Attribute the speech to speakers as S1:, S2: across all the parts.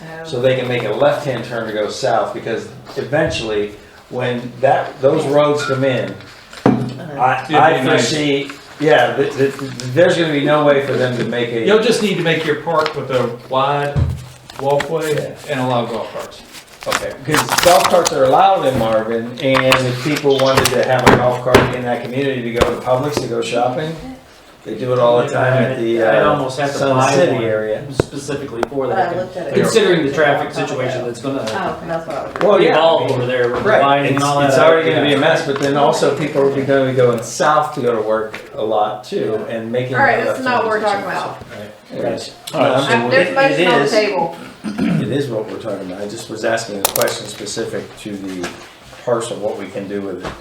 S1: Um,
S2: so they can make a left-hand turn to go south, because eventually, when that, those roads come in, I,
S3: It'd be
S2: I
S3: nice.
S2: foresee, yeah, th- th- there's gonna be no way for them to make
S3: You'll
S2: a,
S3: just need to make your park with a wide walkway and allow golf carts.
S2: okay, because golf carts are allowed in Marvin, and if people wanted to have a golf cart in that community to go to Publix to go shopping, they do it all the time at the,
S4: I'd
S2: uh,
S4: almost have to
S2: Sun
S4: buy
S2: City
S4: one.
S2: area.
S4: specifically for
S5: But I
S4: that,
S5: looked at it.
S4: considering the traffic situation that's gonna
S5: Oh, okay, that's what I was.
S2: Well, yeah.
S4: evolve over there with
S2: Right,
S4: lighting
S2: it's,
S4: and all that.
S2: it's already gonna be a
S4: Yeah.
S2: mess, but then also people are gonna be going south to go to work a lot too, and making.
S1: All right,
S2: that
S1: that's
S2: left
S1: not what we're
S2: turn.
S1: talking about.
S2: Anyways,
S1: I'm-
S2: um,
S1: There's a
S2: It
S1: motion on the
S2: is,
S1: table.
S2: it is what we're talking about, I just was asking a question specific to the parcel, what we can do with it.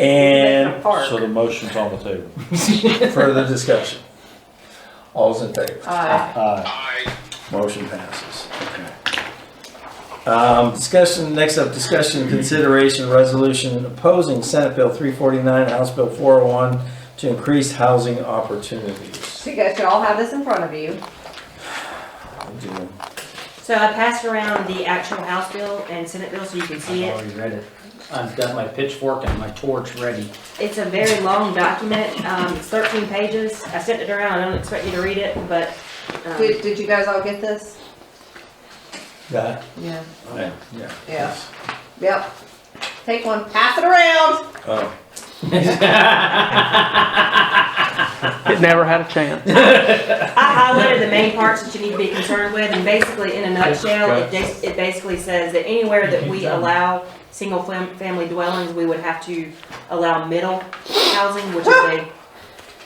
S2: And
S5: Park.
S6: So the motion's on the table.
S2: further discussion. All's in favor,
S1: Aye.
S4: Uh,
S6: Aye.
S2: motion passes. Okay. Um, discussion, next up, discussion, consideration, resolution opposing Senate Bill three forty-nine, House Bill four oh one to increase housing opportunities.
S1: So you guys should all have this in front of you.
S2: I do.
S7: So I passed around the actual House bill and Senate bill so you can see
S4: I've
S7: it.
S4: already read it. I've got my pitchfork and my torch ready.
S7: It's a very long document, um, it's thirteen pages. I sent it around, I don't expect you to read it, but, um,
S1: Did, did you guys all get this?
S2: Yeah.
S1: Yeah.
S2: Yeah.
S1: Yeah. Yep. Take one, pass it around.
S2: Oh,
S8: It never had a chance.
S7: I highlighted the main parts that you need to be concerned with. And basically, in a nutshell, it, bas- it basically says that anywhere that we allow single fam- family dwellings, we would have to allow middle housing, which is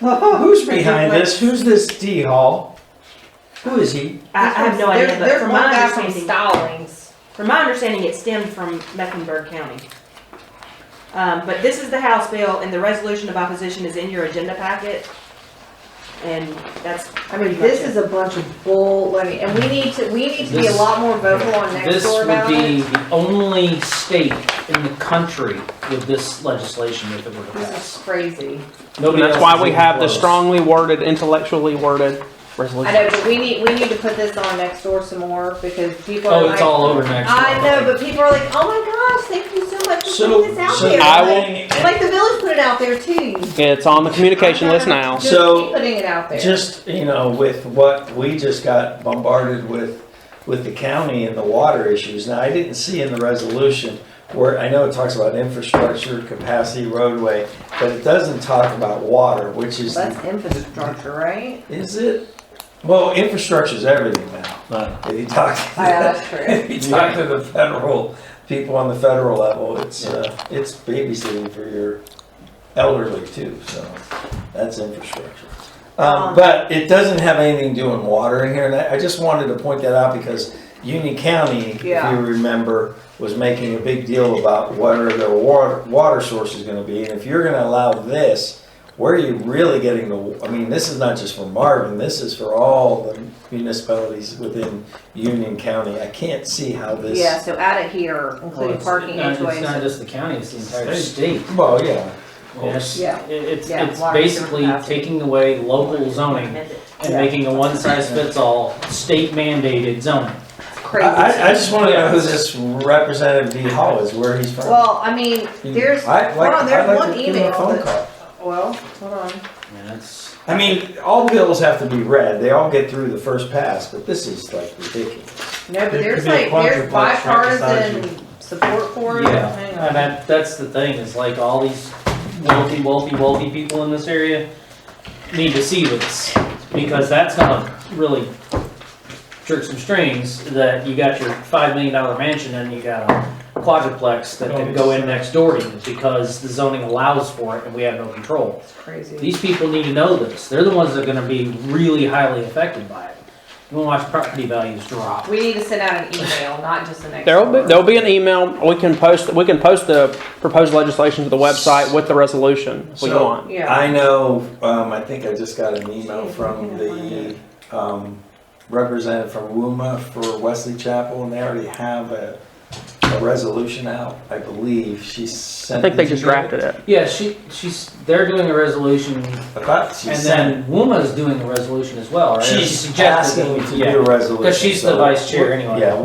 S7: a
S2: Who's behind this? Who's this D Hall? Who is he?
S7: I, I have no idea,
S1: There's-
S7: but
S1: There's
S7: from
S1: one
S7: my
S1: guy from
S7: understanding,
S1: Stallings.
S7: from my understanding, it stemmed from Mecklenburg County. Um, but this is the House bill, and the resolution of opposition is in your agenda packet. And that's,
S1: I mean, this is a bunch of bull, let me, and we need to, we need to be a
S4: This-
S1: lot more vocal on next
S4: This
S1: door
S4: would
S1: about
S4: be
S1: it.
S4: the only state in the country with this legislation if it were to
S1: This is
S4: pass.
S1: crazy.
S4: Nobody
S8: That's
S4: else
S8: why
S4: is
S8: we
S4: even
S8: have the
S4: close.
S8: strongly worded, intellectually worded
S4: Oh,
S1: I
S8: resolution.
S1: know, but we need, we need to put this on next door some more because people are
S4: Oh,
S1: like.
S4: it's all over next.
S1: I
S4: door.
S1: know, but people are like, oh my gosh, thank you so much for
S2: So,
S1: putting this out
S2: so
S1: there.
S8: I will-
S1: Like- Like the village put it out there too.
S8: It's on the communication list now.
S1: Just
S2: So-
S1: keep putting it out there.
S2: Just, you know, with what we just got bombarded with, with the county and the water issues. Now, I didn't see in the resolution where, I know it talks about infrastructure, capacity, roadway, but it doesn't talk about water, which is,
S1: That's infrastructure, right?
S2: is it? Well, infrastructure's everything now.
S6: Aye.
S2: If you talk,
S1: Oh, yeah, that's true.
S2: if you talk to the federal, people on the federal level, it's, uh, it's babysitting for your elderly too, so that's infrastructure. Um, but it doesn't have anything to do with water in here, and I, I just wanted to point that out because Union County, if
S1: Yeah.
S2: you remember, was making a big deal about what are their water, water sources gonna be, and if you're gonna allow this, where are you really getting the, I mean, this is not just for Marvin, this is for all the municipalities within Union County, I can't see how this.
S1: Yeah, so add it here,
S4: Well,
S1: including
S4: it's-
S1: parking
S4: no, It's
S1: HOAs.
S4: not just the county, it's the entire state.
S2: Well, yeah,
S4: Yes,
S1: Yeah.
S4: it- it's,
S1: Yeah,
S4: it's
S1: water
S4: basically
S1: capacity.
S4: taking away local zoning
S7: amended.
S4: and
S1: Yeah.
S4: making a one-size-fits-all state mandated zoning.
S1: It's
S2: I,
S1: crazy.
S2: I- I just wanna know who this Representative D Hall is, where he's from.
S1: Well, I mean, there's,
S2: I'd
S1: hold
S2: like-
S1: on, there's
S2: I'd like
S1: one
S2: to give him a
S1: email
S2: phone
S1: that-
S2: call.
S1: well, hold on.
S4: And that's,
S2: I mean, all bills have to be read. They all get through the first pass, but this is like ridiculous.
S1: No, but
S3: There
S1: there's
S3: could be a
S1: like, there's
S3: quadruplex right beside
S1: bipartisan support for it.
S4: Yeah,
S1: Hang on.
S4: and that, that's the thing, is like all these wealthy, wealthy, wealthy people in this area need to see this, because that's gonna really jerk some strings, that you got your five million dollar mansion and you got a quadruplex that could go in next door to you, because the zoning allows for it and we have no control.
S1: It's crazy.
S4: These people need to know this. They're the ones that are gonna be really highly affected by it. You wanna watch property values drop.
S1: We need to send out an email, not just an.
S8: There'll be, there'll be an email, we can post, we can post the proposed legislation to the website with the resolution if we
S2: So-
S8: want.
S1: Yeah.
S2: I know, um, I think I just got an email from the, um, representative from WUMA for Wesley Chapel and they already have a, a resolution out, I believe. She
S8: I
S2: sent.
S8: think they
S2: did you
S8: just
S2: get it?
S8: drafted it.
S4: Yeah, she, she's, they're doing a resolution
S2: I thought she
S4: And
S2: sent.
S4: then Wuma's doing the resolution as well, right? She
S2: She's
S4: suggested-
S2: asking me to do a resolution.
S4: Because she's the
S2: so-
S4: vice chair anyway.
S2: Yeah,